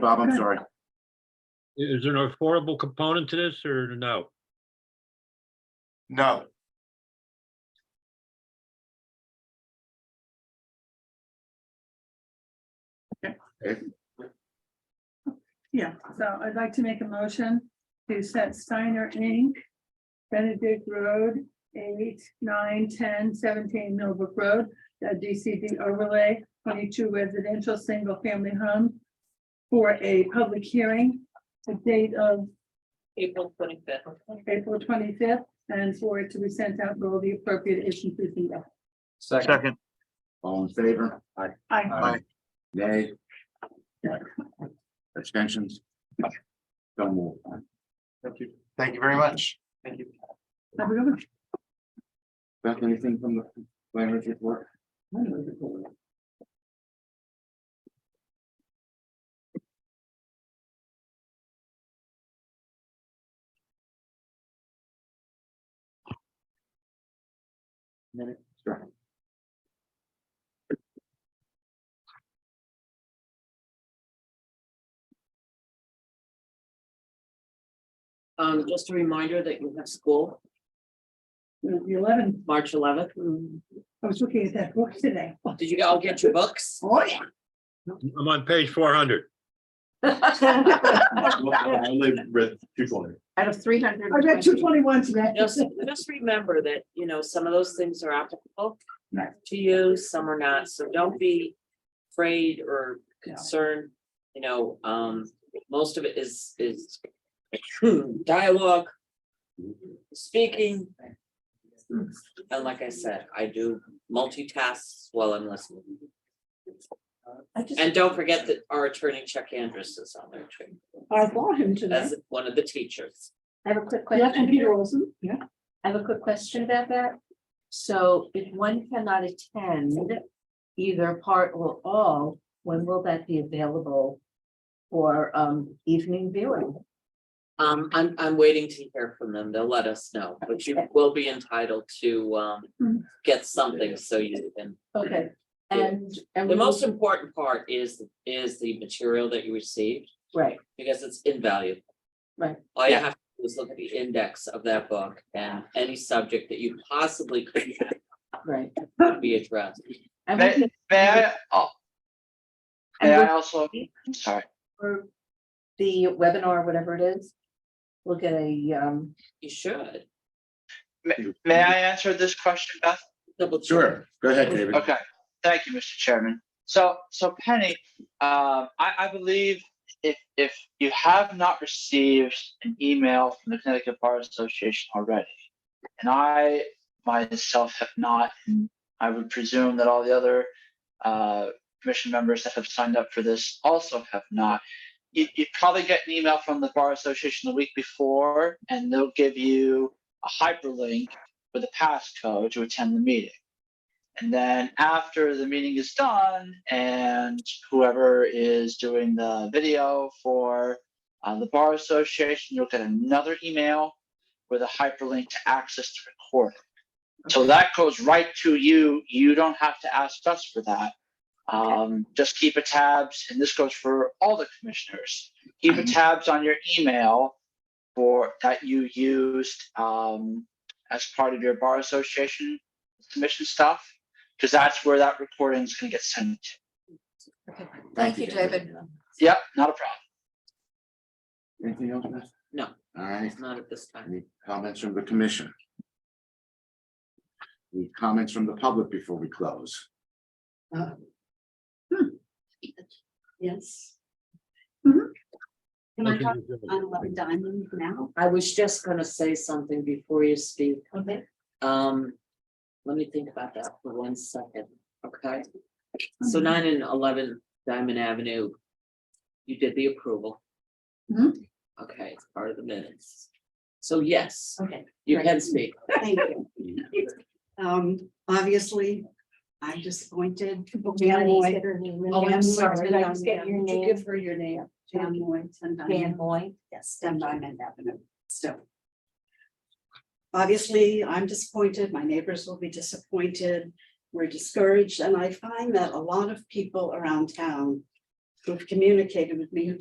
Bob, I'm sorry. Is there an affordable component to this or no? No. Yeah, so I'd like to make a motion to set Steiner Inc. Benedict Road, eight, nine, ten, seventeen Millbrook Road, a DCD overlay, twenty-two residential, single-family home for a public hearing, the date of April twenty-fifth. April twenty-fifth, and for it to be sent out with all the appropriate agencies. and- Second, All in favor? Aye. I, Nay. Abstentions? Don't move. Thank you. Thank you very much. Thank you. I really Beth, anything from the planners report? Minute, sure. Um, just a reminder that you have school The eleven, March eleventh. I was looking at that book today. Did you all get your books? Oh, yeah. I'm on page four hundred. I only read two for Out of three hundred. I read two twenty-one today. Just, just remember that, you know, some of those things are applicable Right. to you, some are not, so don't be afraid or concerned. You know, um, most of it is, is dialogue, speaking. And like I said, I do multitasks while I'm listening. And don't forget that our attorney Chuck Andrus is on there too, I bought him today. as one of the teachers. I have a quick Yeah, and question. Peter Olson. Yeah. I have a quick question about that. So if one cannot attend either part or all, when will that be available for um evening viewing? Um, I'm, I'm waiting to hear from them. They'll let us know, but you will be entitled to, um, Mhm. get something so you can. Okay, and and The we will- most important part is, is the material that you received, right, because it's invaluable. Right. All you Yeah. have to do is look at the index of that book and any subject that you possibly could right. have be addressed. And we May, can- may I, oh, may I and also, sorry, for the webinar, whatever it is, we'll get a um, You should may I answer this question, Beth? double. check. Sure, go ahead, David. Okay, thank you, Mr. Chairman. So, so Penny, um, I, I believe if, if you have not received an email from the Connecticut Bar Association already, and I myself have not, and I would presume that all the other, uh, commission members that have signed up for this also have not. You, you probably get an email from the Bar Association the week before, and they'll give you a hyperlink with a passcode to attend the meeting. And then after the meeting is done and whoever is doing the video for uh, the Bar Association, you'll get another email with a hyperlink to access the recording. So that goes right to you. You don't have to ask us for that. Um, just keep a tabs, and this goes for all the commissioners. Keep a tabs on your email for that you used um, as part of your Bar Association submission stuff because that's where that recording is going to get sent. Thank you, David. Yep, not a problem. Anything else, Beth? No. All right, It's Not at this time. any comments from the commission? Any comments from the public before we close? Uh, hmm. Yes. Mhm. Can I talk on eleven diamond now? I was just gonna say something before you speak. Okay. Um, let me think about that for one second, okay? Mm-hmm. So nine and eleven Diamond Avenue, you did the approval. Mm-hmm. Mhm. Okay, it's part of the minutes. So yes, Okay, you can speak. thank you. Um, obviously, I'm disappointed. Dan Moy. Oh, I'm sorry. I was getting your name. Give her your name. Dan Moy, ten Diamond. Moy. Yes, ten Diamond Avenue, so. Obviously, I'm disappointed, my neighbors will be disappointed, we're discouraged, and I find that a lot of people around town who've communicated with me who